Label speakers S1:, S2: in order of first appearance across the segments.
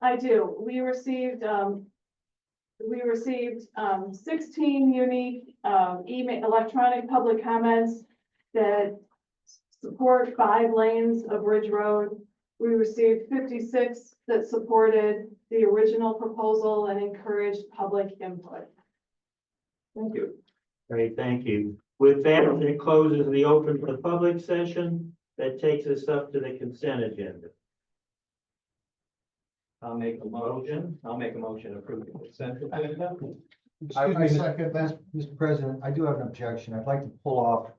S1: I do. We received, um, we received, um, sixteen unique, um, email, electronic public comments that support five lanes of Ridge Road. We received fifty-six that supported the original proposal and encouraged public input.
S2: Thank you. Great, thank you. With that, it closes the open to the public session. That takes us up to the consent agenda. I'll make a motion. I'll make a motion to approve the consent agenda.
S3: I,
S4: Excuse me,
S3: I
S4: Mr.
S3: second that,
S4: Mr. President, I do have an objection. I'd like to pull off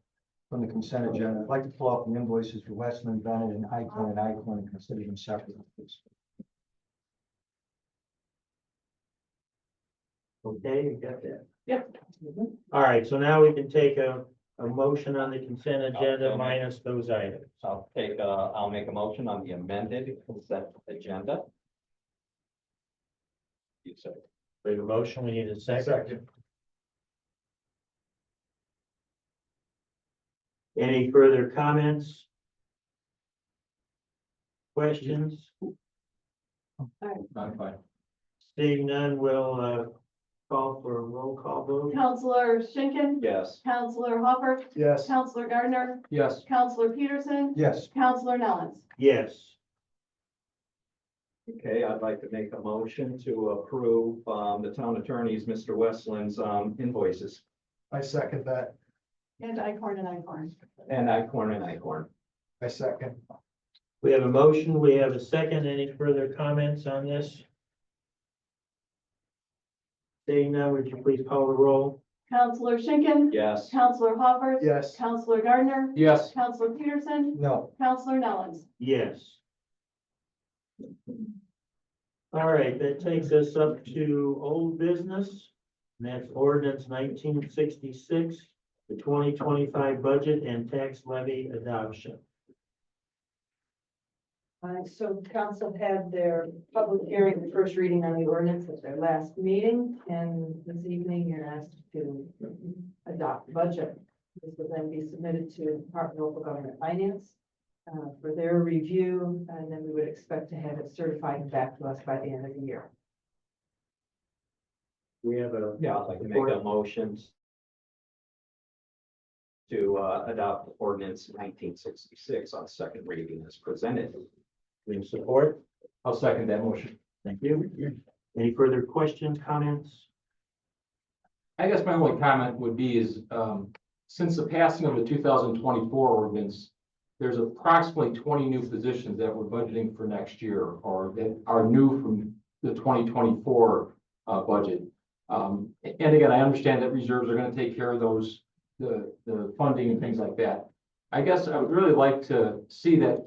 S4: from the consent agenda. I'd like to pull off the invoices for Westman, Bennett, and Icon and Icon and consider them separate. please.
S2: Okay, you got that?
S1: Yep.
S2: All right, so now we can take a, a motion on the consent agenda minus those items.
S5: So I'll take, uh, I'll make a motion on the amended consent agenda. You said,
S2: We have a motion, we need a second. Any further comments? Questions?
S5: not fine.
S2: Seeing none, we'll, uh, call for a roll call vote.
S1: Counselor Schinkin.
S5: Yes.
S1: Counselor Hopper.
S4: Yes.
S1: Counselor Gardner.
S5: Yes.
S1: Counselor Peterson.
S4: Yes,
S1: Counselor Nellens.
S2: Yes,
S5: Okay, I'd like to make a motion to approve, um, the town attorney's, Mr. Westland's, um, invoices
S4: I second that.
S1: And Icorn and Icorn.
S5: and Icorn and Icorn.
S4: I second.
S2: we have a motion, we have a second. Any further comments on this? Seeing none, would you please call the roll?
S1: Counselor Schinkin.
S5: Yes.
S1: Counselor Hopper.
S4: Yes.
S1: Counselor Gardner.
S5: Yes.
S1: Counselor Peterson.
S4: No,
S1: Counselor Nellens.
S2: Yes. All right, that takes us up to old business. And that's ordinance nineteen sixty-six, the twenty twenty-five budget and tax levy adoption.
S6: Uh, so council had their public hearing, the first reading on the ordinance at their last meeting, and this evening you're asked to adopt the budget. This will then be submitted to Department of Local Government Finance uh, for their review, and then we would expect to have it certified and back to us by the end of the year.
S2: We have a,
S5: Yeah, I'd like to make a motion to, uh, adopt ordinance nineteen sixty-six on second reading as presented.
S2: we have support.
S5: I'll second that motion.
S2: Thank you. Any further questions, comments?
S7: I guess my only comment would be is, um, since the passing of the two thousand twenty-four ordinance, there's approximately twenty new positions that we're budgeting for next year or that are new from the twenty twenty-four, uh, budget. Um, a- and again, I understand that reserves are gonna take care of those, the, the funding and things like that. I guess I would really like to see that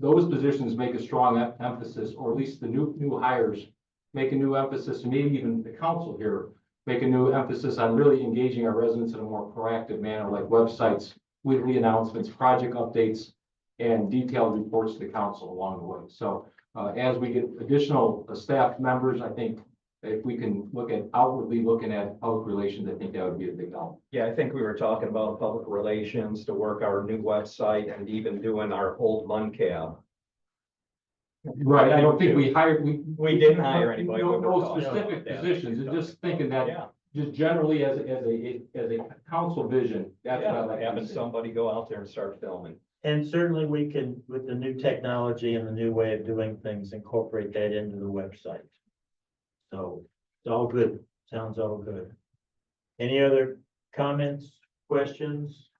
S7: those positions make a strong em- emphasis, or at least the new, new hires make a new emphasis, and maybe even the council here make a new emphasis on really engaging our residents in a more proactive manner, like websites, weekly announcements, project updates, and detailed reports to the council along the way. So uh, as we get additional staff members, I think if we can look at outwardly looking at public relations, I think that would be a big help.
S5: Yeah, I think we were talking about public relations to work our new website and even doing our old MunCab.
S7: Right, I don't think we hired, we.
S5: We didn't hire anybody.
S7: No,
S5: We were
S7: no
S5: talking about
S7: specific
S5: that.
S7: positions, and just thinking that,
S5: Yeah,
S7: just generally as, a- as a, as a council vision, that's what I
S5: yeah,
S7: like. to
S5: having
S7: see.
S5: somebody go out there and start filming.
S2: And certainly we can, with the new technology and the new way of doing things, incorporate that into the website. So it's all good. Sounds all good. Any other comments, questions?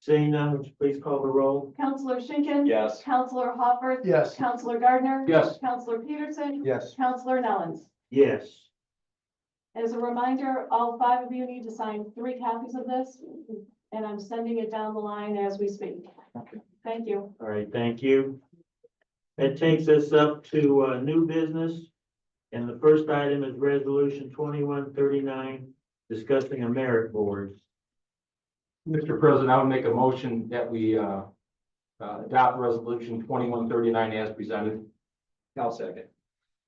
S2: Seeing none, would you please call the roll?
S1: Counselor Schinkin.
S5: Yes.
S1: Counselor Hopper.
S4: yes.
S1: Counselor Gardner.
S7: Yes.
S1: Counselor Peterson.
S4: Yes.
S1: Counselor Nellens.
S2: Yes.
S1: As a reminder, all five of you need to sign three copies of this, and I'm sending it down the line as we speak. Thank you.
S2: All right, thank you. That takes us up to uh, new business. And the first item is resolution twenty-one thirty-nine, discussing a merit board.
S7: Mr. President, I would make a motion that we uh, uh, adopt resolution twenty-one thirty-nine as presented.
S5: I'll second.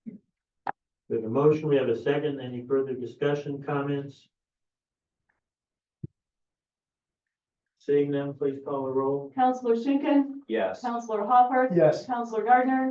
S2: We have a motion, we have a second. Any further discussion, comments? Seeing none, please call the roll.
S1: Counselor Schinkin.
S5: Yes.
S1: Counselor Hopper.
S4: Yes.
S1: Counselor Gardner.